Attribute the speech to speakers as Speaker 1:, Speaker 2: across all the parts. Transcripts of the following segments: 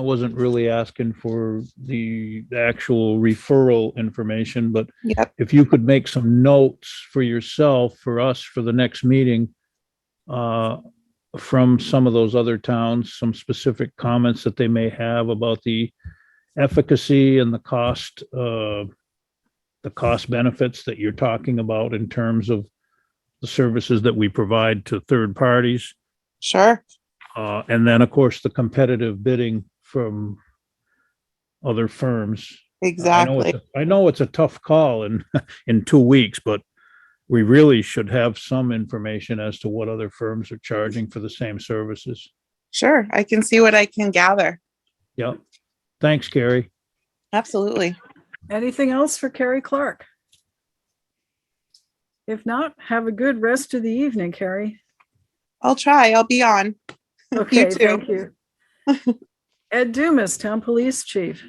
Speaker 1: I wasn't really asking for the the actual referral information, but
Speaker 2: Yep,
Speaker 1: if you could make some notes for yourself, for us, for the next meeting, uh, from some of those other towns, some specific comments that they may have about the efficacy and the cost, uh, the cost benefits that you're talking about in terms of the services that we provide to third parties.
Speaker 2: sure.
Speaker 1: Uh, and then, of course, the competitive bidding from other firms I know
Speaker 2: Exactly.
Speaker 1: it's a- I know it's a tough call in, in two weeks, but we really should have some information as to what other firms are charging for the same services.
Speaker 2: Sure. I can see what I can gather.
Speaker 1: Yep. Thanks, Gary.
Speaker 2: Absolutely.
Speaker 3: Anything else for Carrie Clark? If not, have a good rest of the evening, Carrie.
Speaker 2: I'll try. I'll be on.
Speaker 3: Okay,
Speaker 2: too.
Speaker 3: thank you. Ed Dumas, Town Police Chief.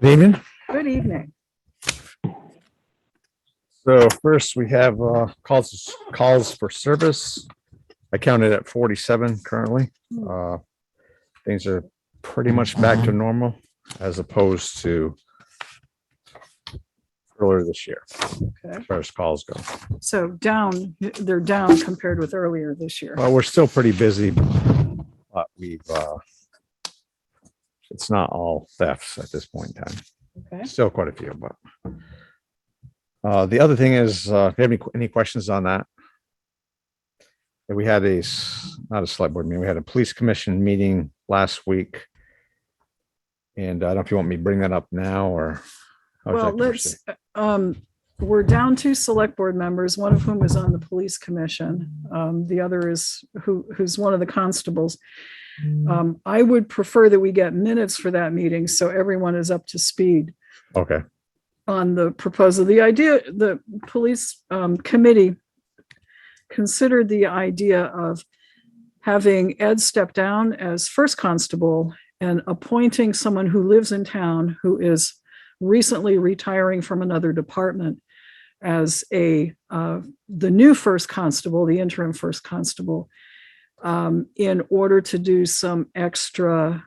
Speaker 4: Good evening.
Speaker 3: Good evening.
Speaker 4: So first we have uh, calls, calls for service. I counted at forty-seven currently. Uh, Things are pretty much back to normal as opposed to earlier this year,
Speaker 3: Okay.
Speaker 4: as far as calls go.
Speaker 3: So down, they're down compared with earlier this year.
Speaker 4: Well, we're still pretty busy, but we've, uh, it's not all thefts at this point in time.
Speaker 3: Okay.
Speaker 4: Still quite a few, but. Uh, the other thing is, uh, if you have any, any questions on that? Yeah, We had a, s- not a select board meeting, we had a police commission meeting last week. And I don't know if you want me to bring that up now or. how would you
Speaker 3: Well,
Speaker 4: like to proceed?
Speaker 3: let's, um, we're down two select board members, one of whom is on the police commission. Um, the other is who, who's one of the constables.
Speaker 4: Hmm.
Speaker 3: Um, I would prefer that we get minutes for that meeting so everyone is up to speed
Speaker 4: Okay,
Speaker 3: on the proposal. The idea, the police um, committee considered the idea of having Ed step down as first constable and appointing someone who lives in town who is recently retiring from another department as a, uh, the new first constable, the interim first constable, um, in order to do some extra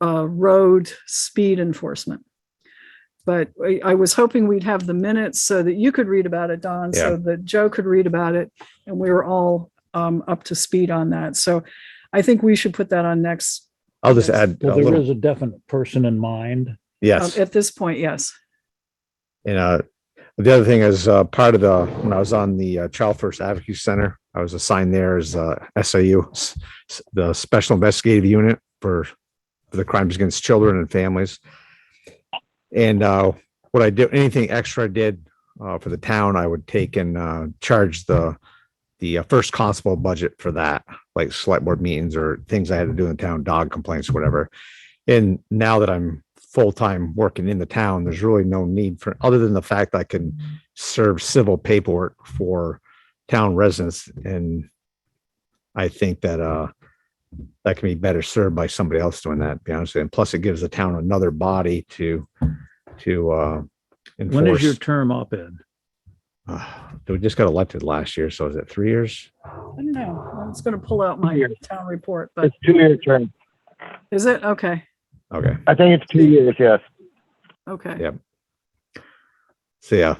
Speaker 3: uh, road speed enforcement but I, I was hoping we'd have the minutes so that you could read about it, Don, so that Joe could read about it, and we were all um, up to speed on that. So I think we should put that on next.
Speaker 4: I'll just
Speaker 3: Yes.
Speaker 4: add a
Speaker 1: Well, there
Speaker 4: little,
Speaker 1: is um, a definite person in mind.
Speaker 3: um,
Speaker 4: yes.
Speaker 3: At this point, yes.
Speaker 4: And uh, the other thing is uh, part of the when I was on the uh, Child First Advocacy Center, I was assigned there as uh, SAU, s- s- the Special Investigative Unit for, for the crimes against children and families. And uh, what I did, anything extra I did uh, for the town, I would take and uh, charge the the uh, first constable budget for that, like select board meetings or things I had to do in the town, dog complaints, whatever. And now that I'm full-time working in the town, there's really no need for, other than the fact I can serve civil paperwork for town residents and I think that, uh, that can be better served by somebody else doing that, to be honest with you. And plus it gives the town another body to, to, uh,
Speaker 1: When is your
Speaker 4: enforce.
Speaker 1: term up, Ed?
Speaker 4: Uh, We just got elected last year, so is it three years?
Speaker 3: I don't know. I was going to pull out my town report, but
Speaker 5: It's two-year term.
Speaker 3: is it? Okay.
Speaker 4: Okay.
Speaker 5: I think it's two years, yes.
Speaker 3: Okay.
Speaker 4: Yeah. So yeah,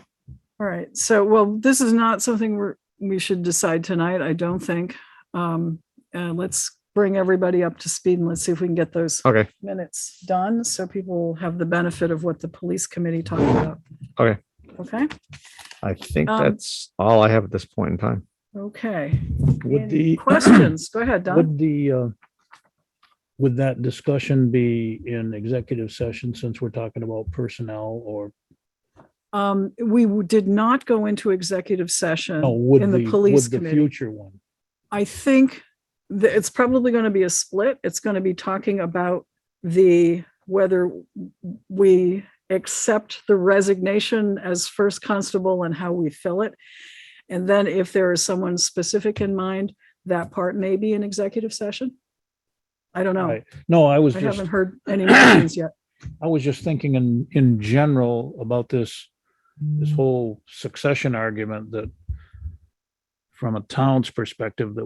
Speaker 3: All right. So, well, this is not something we're, we should decide tonight, I don't think. Um, and let's bring everybody up to speed and let's see if we can get those
Speaker 4: okay.
Speaker 3: minutes done so people have the benefit of what the police committee talked about.
Speaker 4: Okay.
Speaker 3: Okay,
Speaker 4: I think
Speaker 3: Um,
Speaker 4: that's all I have at this point in time.
Speaker 3: okay.
Speaker 1: Would
Speaker 3: Any
Speaker 1: the,
Speaker 3: questions? Go ahead, Don.
Speaker 1: would the, uh, would that discussion be in executive session since we're talking about personnel or,
Speaker 3: Um, we w- did not go into
Speaker 1: no,
Speaker 3: executive session.
Speaker 1: would
Speaker 3: In the
Speaker 1: the, would
Speaker 3: police
Speaker 1: the
Speaker 3: committee.
Speaker 1: future one?
Speaker 3: I think that it's probably going to be a split. It's going to be talking about the, whether we accept the resignation as first constable and how we fill it. And then if there is someone specific in mind, that part may be an executive session. I don't know.
Speaker 1: Right. No, I was
Speaker 3: I
Speaker 1: just
Speaker 3: haven't heard any mentions yet.
Speaker 1: I was just thinking in, in general about this,
Speaker 3: Mm.
Speaker 1: this whole succession argument that from a town's perspective, that